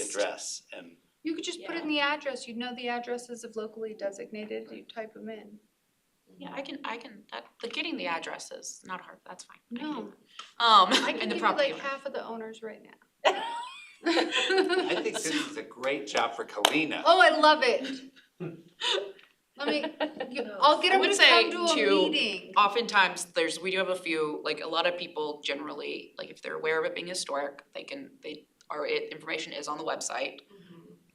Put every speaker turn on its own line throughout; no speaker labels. address and
You could just put
Yeah.
in the address, you'd know the addresses of locally designated, you type them in.
Yeah, I can, I can, that, the getting the address is not hard, that's fine. I can do
No.
that. Um,
I
and
can
the
give you
property
like
owner.
half of the owners right now.
I think this is a great job for Kalina.
Oh, I love it. Let me, you- I'll get
I
them
would
to
say
come to a
to-
meeting.
Oftentimes, there's, we do have a few, like, a lot of people generally, like, if they're aware of it being historic, they can, they, our i- information is on the website.
Mm-hmm.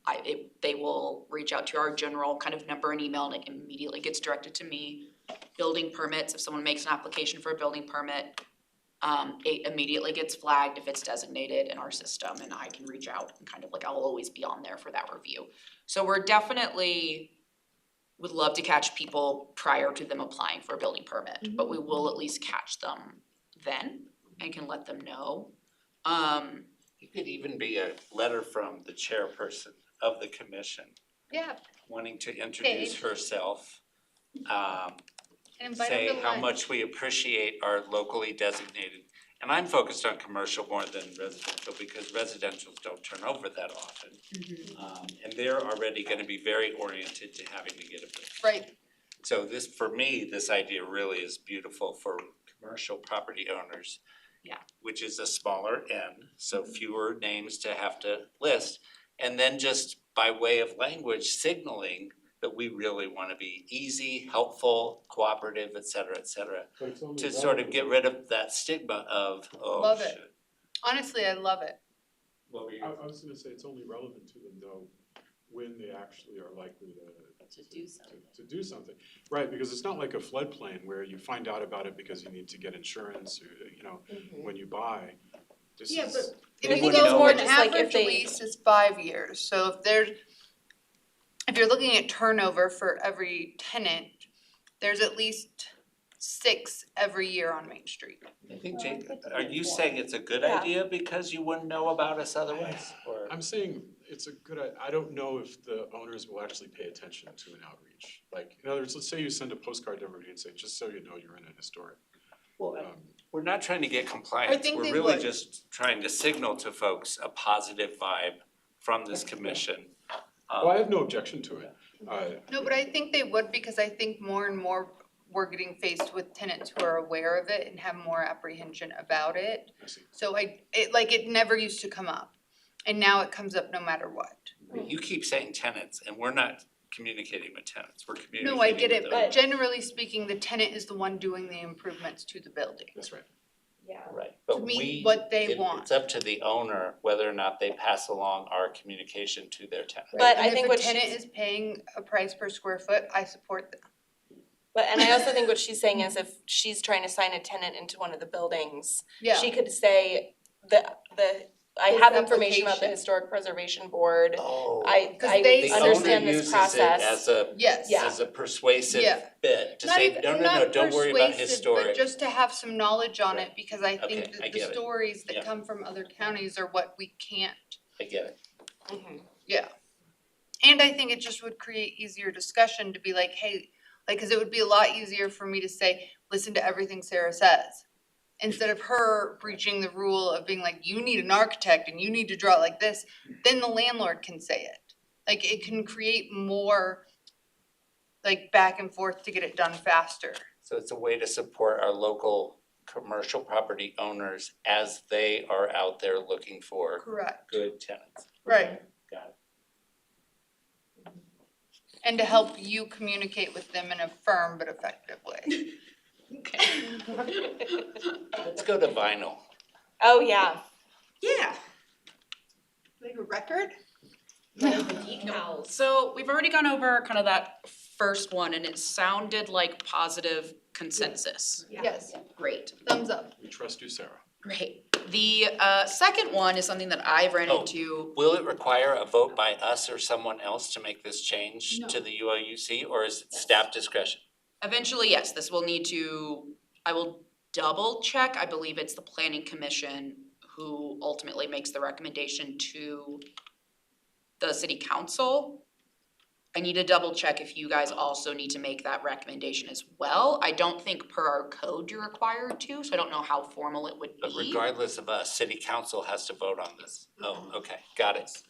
I, it, they will reach out to our general kind of number and email, and it immediately gets directed to me. Building permits, if someone makes an application for a building permit, um, it immediately gets flagged if it's designated in our system, and I can reach out and kind of like, I'll always be on there for that review. So we're definitely, would love to catch people prior to them applying for a building permit, but we will at least catch them then and can let them know. Um,
It could even be a letter from the chairperson of the commission
Yeah,
wanting to introduce
Okay.
herself. Um,
and invite them
say
to
how
lunch.
much we appreciate our locally designated, and I'm focused on commercial more than residential because residentials don't turn over that often. Um, and they're already gonna be very oriented to having to get a building.
Right,
So this, for me, this idea really is beautiful for commercial property owners.
Yeah.
Which is a smaller N, so fewer names to have to list. And then just by way of language signaling that we really wanna be easy, helpful, cooperative, et cetera, et cetera. To sort of get rid of that stigma of, oh
Love it.
shit.
honestly, I love it.
What were you-
I, I was gonna say, it's only relevant to them though, when they actually are likely to.
To do something.
To do something, right, because it's not like a floodplain where you find out about it because you need to get insurance, or, you know, when you buy. This
Yeah,
is,
They
If you
wouldn't
go
know
for
it.
an
Just like if
average
they-
lease is five years, so if there's, if you're looking at turnover for every tenant, there's at least six every year on Main Street.
I think
Well, I
Jake,
think
are
it's
you
more.
saying it's a good
Yeah.
idea because you wouldn't know about us otherwise, or?
I'm saying, it's a good, I, I don't know if the owners will actually pay attention to an outreach. Like, in other words, let's say you send a postcard to everybody and say, just so you know, you're in a historic.
Well,
um,
We're not trying to get compliance,
think
we're
they
really
would.
just trying to signal to folks a positive vibe from this commission. Um,
Well, I have no objection to it, uh,
No, but I think they would because I think more and more we're getting faced with tenants who are aware of it and have more apprehension about it.
I see.
So I, it, like, it never used to come up, and now it comes up no matter what.
You keep saying tenants, and we're not communicating with tenants, we're communicating
No,
with
I get it,
them.
but generally speaking, the tenant is the one doing the improvements to the building.
that's right.
Yeah.
Right,
to
but
meet
we,
what they
it-
want.
it's up to the owner whether or not they pass along our communication to their tenants.
But I think what
And if a tenant
she's-
is paying a price per square foot, I support them.
But, and I also think what she's saying is if she's trying to sign a tenant into one of the buildings,
Yeah,
she could say, the, the, I
His
have information about the
application. Historic
Historic Preservation Board.
Oh.
I,
'Cause they-
I understand this
The owner uses
process.
it
yes.
as a, as a persuasive
Yeah.
bit to
Not
say,
even-
no, no,
not
no, don't worry about
persuasive,
historic.
But just to have some knowledge on
Right.
it, because I
Okay,
think
I get
that the
it.
stories
Yeah.
that come from other counties are what we can't.
I get it,
Mhm.
And I think it just would create easier discussion to be like, hey, like, cause it would be a lot easier for me to say, listen to everything Sarah says. Instead of her breaching the rule of being like, you need an architect and you need to draw it like this, then the landlord can say it. Like, it can create more like back and forth to get it done faster.
So it's a way to support our local commercial property owners as they are out there looking for
Correct.
good tenants.
Right.
Got it.
And to help you communicate with them in a firm but effective way.
Let's go to vinyl.
Oh, yeah.
Yeah.
Like a record?
So we've already gone over kind of that first one and it sounded like positive consensus.
Yes,
Great.
thumbs up.
We trust you, Sarah.
Great. The uh second one is something that I've ran
Oh.
into.
Will it require a vote by us or someone else to make this change to the UOUC or is it staff discretion?
Eventually, yes, this will need to, I will double check. I believe it's the planning commission who ultimately makes the recommendation to the city council. I need to double check if you guys also need to make that recommendation as well. I don't think per our code you're required to, so I don't know how formal it would be.
Mm-hmm.
But regardless of us, city council has to vote on this. Oh, okay, got it.